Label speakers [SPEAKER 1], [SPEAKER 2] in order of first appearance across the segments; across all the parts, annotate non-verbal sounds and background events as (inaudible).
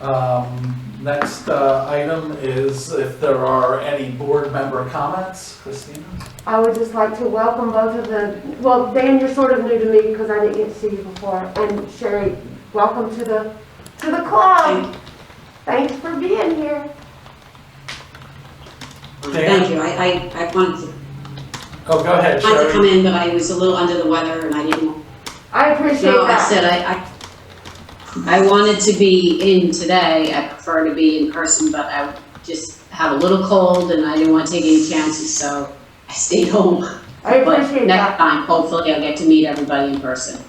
[SPEAKER 1] Um, Next uh, item is if there are any board member comments. Christina?
[SPEAKER 2] I would just like to welcome both of the, well, Dan, you're sort of new to me because I didn't get to see you before. And Sherry, welcome to the, to the club. Thanks for being here.
[SPEAKER 3] Um,
[SPEAKER 1] Dan?
[SPEAKER 3] Thank you, I, I, I wanted
[SPEAKER 1] Oh, go ahead,
[SPEAKER 3] to, wanted to come
[SPEAKER 1] Sherry.
[SPEAKER 3] in, but I was a little under the weather and I didn't,
[SPEAKER 2] I appreciate
[SPEAKER 3] no, I
[SPEAKER 2] that.
[SPEAKER 3] said I, I, I wanted to be in today, I prefer to be in person, but I just have a little cold and I didn't wanna take any chances, so I stayed (laughs) home.
[SPEAKER 2] I appreciate
[SPEAKER 3] But next
[SPEAKER 2] that.
[SPEAKER 3] time, hopefully I'll get to meet everybody in person.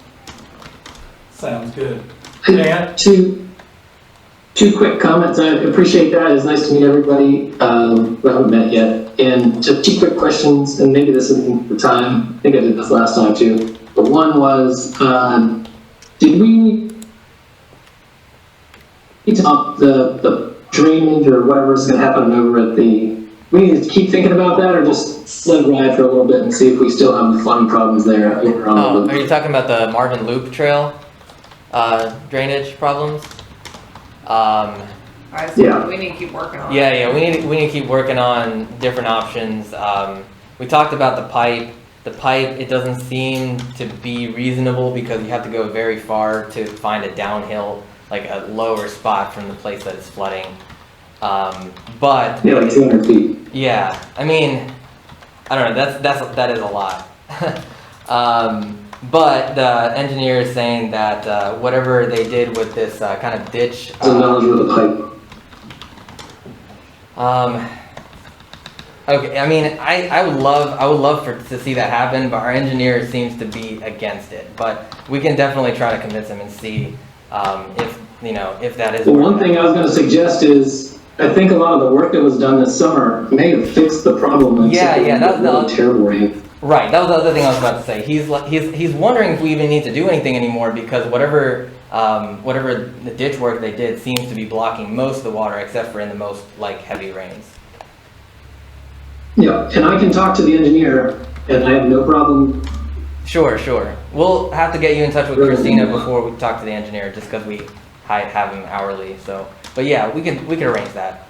[SPEAKER 1] Sounds good. Dan?
[SPEAKER 4] Two, two quick comments. I appreciate that. It's nice to meet everybody. Um, we haven't met yet. And just two quick questions, and maybe this isn't the time. I think I did this last time too. But one was, um, did we need to up the, the drainage or whatever's going to happen over at the, we need to keep thinking about that or just let it ride for a little bit and see if we still have the flooding problems there over on the
[SPEAKER 5] Oh, are you talking about the Marvin Loop Trail uh, drainage problems? Um,
[SPEAKER 6] I see.
[SPEAKER 4] Yeah.
[SPEAKER 6] we need to keep working on it.
[SPEAKER 5] yeah, yeah, we need we need to keep working on different options. Um, we talked about the pipe. The pipe it doesn't seem to be reasonable because you have to go very far to find a downhill, like a lower spot from the place that it's flooding. Um, but
[SPEAKER 4] Yeah, like 200 feet.
[SPEAKER 5] yeah, I mean, I don't know. That's that's that is a lot. (laughs) um, but the engineer is saying that uh, whatever they did with this uh, kind of ditch,
[SPEAKER 4] It's a knowledge
[SPEAKER 5] um,
[SPEAKER 4] of the pipe.
[SPEAKER 5] um, okay. I mean, I, I would love I would love for to see that happen, but our engineer seems to be against it. But we can definitely try to convince him and see um, if you know if that is.
[SPEAKER 4] Well, one thing I was gonna suggest is, I think a lot of the work that was done this summer may have fixed the problem. except
[SPEAKER 5] Yeah, yeah,
[SPEAKER 4] it
[SPEAKER 5] that's-
[SPEAKER 4] was
[SPEAKER 5] that's-
[SPEAKER 4] Really terrible rain.
[SPEAKER 5] Right. That was the other thing I was about to say. He's li- he's he's wondering if we even need to do anything anymore because whatever um, whatever the ditch work they did seems to be blocking most of the water except for in the most like heavy rains.
[SPEAKER 4] Yeah, and I can talk to the engineer, and I have no problem,
[SPEAKER 5] Sure, sure. We'll have to get you in touch with
[SPEAKER 4] Sure.
[SPEAKER 5] Christina before we talk to the engineer just because we hi- have him hourly. So, but yeah, we can we can arrange that.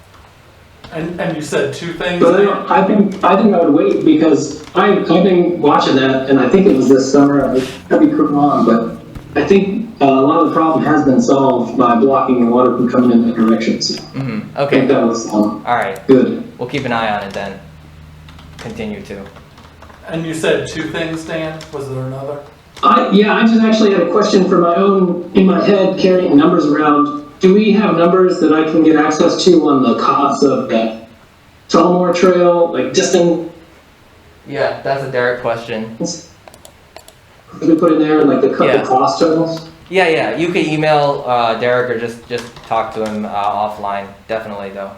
[SPEAKER 1] And, and you said two things.
[SPEAKER 4] but I don't, I think, I think I would wait, because I, I've been watching that, and I think it was this summer, I could be wrong, but I think uh, a lot of the problem has been solved by blocking the water from coming in that direction, so
[SPEAKER 5] hmm
[SPEAKER 4] I think
[SPEAKER 5] Okay.
[SPEAKER 4] that was, um,
[SPEAKER 5] All right.
[SPEAKER 4] good.
[SPEAKER 5] We'll keep an eye on it then. Continue to.
[SPEAKER 1] And you said two things, Dan? Was there another?
[SPEAKER 4] I, yeah, I just actually had a question for my own, in my head, carrying numbers around. Do we have numbers that I can get access to on the costs of the Tullamore Trail, like distance
[SPEAKER 5] Yeah, that's a Derek question.
[SPEAKER 4] we put in there, and like the cut
[SPEAKER 5] Yeah.
[SPEAKER 4] the cost totals?
[SPEAKER 5] Yeah, yeah. You can email uh, Derek or just just talk to him uh, offline. Definitely though.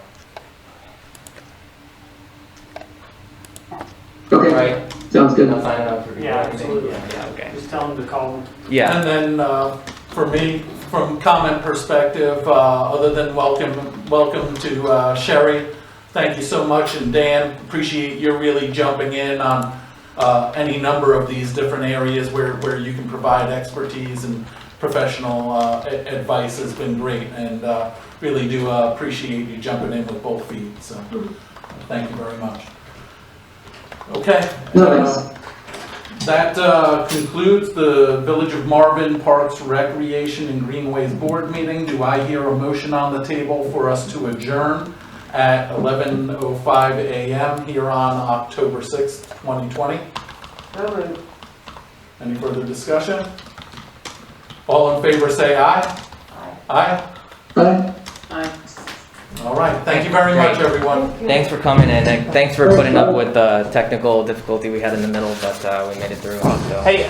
[SPEAKER 4] Okay,
[SPEAKER 5] Right.
[SPEAKER 4] sounds good.
[SPEAKER 5] I'll sign up for-
[SPEAKER 7] Yeah, absolutely.
[SPEAKER 5] Yeah, yeah, okay.
[SPEAKER 7] Just tell them to call them.
[SPEAKER 5] Yeah.
[SPEAKER 1] And then, uh, for me, from comment perspective, uh, other than welcome, welcome to uh, Sherry, thank you so much, and Dan, appreciate your really jumping in on uh, any number of these different areas where, where you can provide expertise and professional uh, a- advice has been great, and uh, really do uh, appreciate you jumping in with both feet, so, thank you very much. Okay. Uh,
[SPEAKER 4] No, thanks.
[SPEAKER 1] That uh, concludes the Village of Marvin Parks Recreation and Greenways Board meeting. Do I hear a motion on the table for us to adjourn at 11:05 a.m. here on October 6th, 2020?
[SPEAKER 2] So moved.
[SPEAKER 1] Any further discussion? All in favor, say aye. Aye?
[SPEAKER 4] Bye.
[SPEAKER 3] Bye.
[SPEAKER 1] All right, thank you very much, everyone.
[SPEAKER 2] Thank you.
[SPEAKER 5] Thanks for coming in. and Thanks for putting up with the technical difficulty we had in the middle, but uh, we made it through. So.
[SPEAKER 7] Hey,